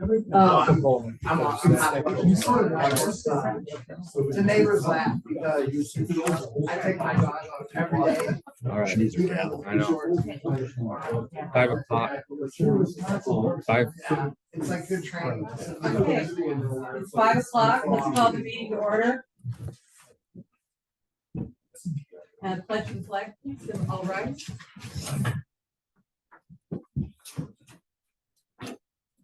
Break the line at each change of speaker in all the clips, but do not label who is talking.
Um,
I'm on- I'm on-
You sort of like-
The neighbors laugh because I take my dog out every day.
All right, these are, I know, five o'clock, five,
Yeah, It's like good training.
Okay. It's five o'clock, let's call the meeting to order. And pledge and flag, please, if all right.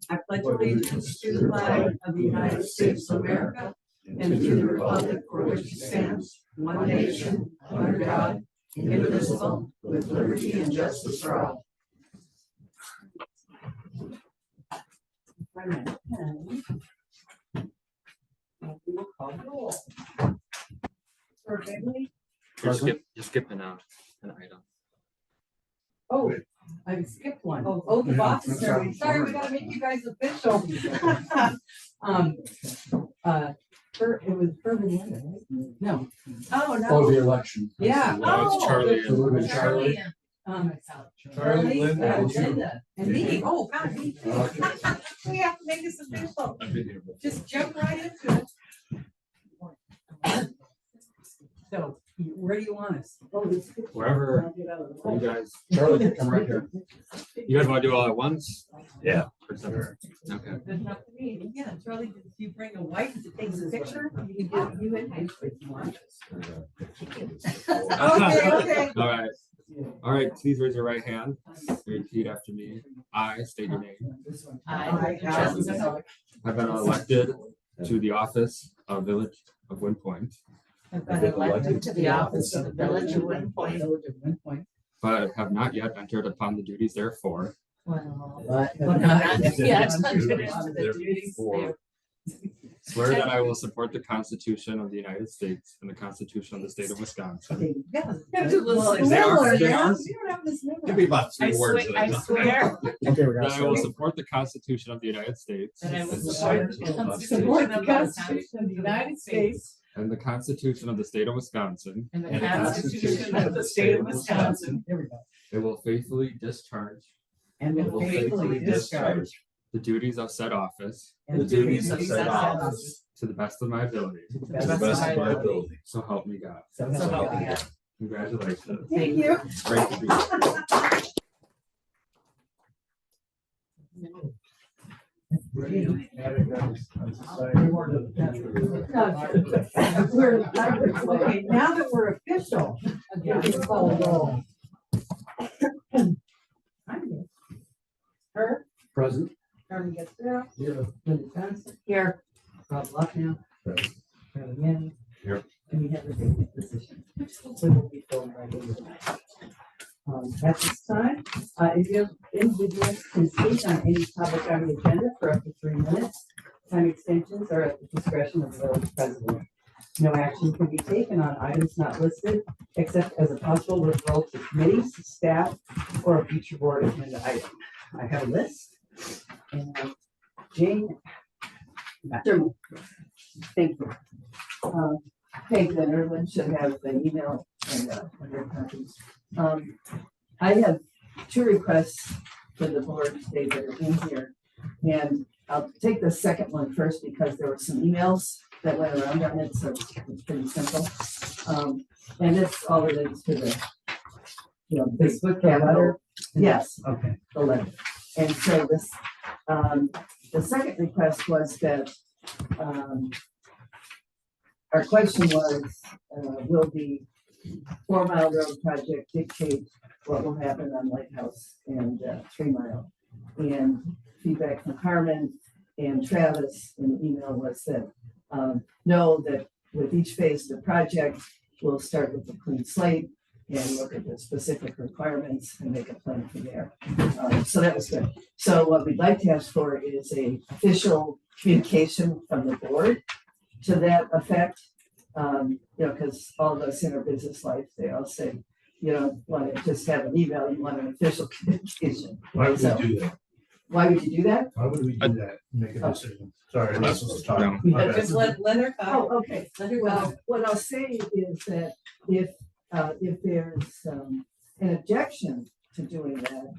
I pledge allegiance to the flag of the United States of America and to the republic for which it stands, one nation, under God, indivisible, with liberty and justice for all.
you're skip, you're skipping out an item.
Oh, I skipped one. Oh, oath of office, sorry, Sorry, we gotta make you guys official. Um, uh, Fur, it was Furman, right? No. Oh,
Oh, the election. Oh.
Yeah. Oh,
No, it's Charlie
So we're gonna Charlie.
Um,
Charlie, Linda,
uh,
and you.
Linda, and me, oh, God, me too.
Okay.
We have to make this official,
I've been here before.
just jump right into it. So, where do you want us?
Wherever you guys,
Charlie, come right here.
you guys wanna do all at once?
Yeah.
Or separate? Okay.
Good enough for me. Yeah, Charlie, did you bring a wife that takes a picture? You did, you and I. Okay, okay.
All right, all right, please raise your right hand, repeat after me. I state your name.
I, Allison Zeller,
I've been elected to the office of Village of Wind Point
have been elected to the office of the village of Wind Point.
but have not yet entered upon the duties therefore.
Well, not yet.
Swear that I will support the Constitution of the United States and the Constitution of the State of Wisconsin.
Yeah.
Have to listen.
They are- they are-
You don't have this
Give
memory.
me about
I swear, I swear
Okay, we
That I will
got.
support the Constitution of the United States
that I will
support
support
the
the
Support
Constitution
the
of the United
Constitution of the United States
and the Constitution of the State of Wisconsin.
and the Constitution of the State of Wisconsin,
It will faithfully discharge
and
It
will faithfully discharge
the duties of said office
the duties of said office.
to the best of my ability.
to the best of my ability.
So help me God.
So
so
help me God.
Congratulations.
Thank you.
Great to be here.
We're, okay, now that we're official. it's called roll. I'm here. Her,
Present.
Carmen Getsura,
Yeah.
Linda Johnson, here, Rob Lucknow.
Present.
Carol Manning.
Here.
And we have the vacant position. We will be filled by the end of the night. Um, At this time, uh, if you individuals can speak on any topic on the agenda for up to three minutes. Time extensions are at the discretion of the village president. No action can be taken on items not listed except as a possible referral to committees, staff, or a future board agenda item. I have a list. and uh, Jane. Thank you. Um, Peg and Erwin should have the email and uh, and their copies. Um, I have two requests for the board today that are in here. And I'll take the second one first because there were some emails that went around on it, so it's pretty simple. Um, and it's all related to the, you know, Facebook, the letter. Yes, okay, the letter. And so this, um, the second request was that, um, our question was, uh, will the Four Mile Road project dictate what will happen on Lighthouse and uh, Three Mile? And feedback from Carmen and Travis in the email was that, um, know that with each phase of the project, we'll start with a clean slate and look at the specific requirements and make a plan from there. Um, So that was good. So what we'd like to ask for is a official communication from the board to that effect. Um, you know, because all of us in our business life, they all say, you don't want to just have an email, you want an official communication.
Why
would we
do that?
Why would you do that?
Why would we do that? Make
a
decision. Sorry,
this was a talk.
Just let, let her go.
Oh, okay.
Let her
Well,
go.
what I'll say is that if, uh, if there's, um, an objection to doing that,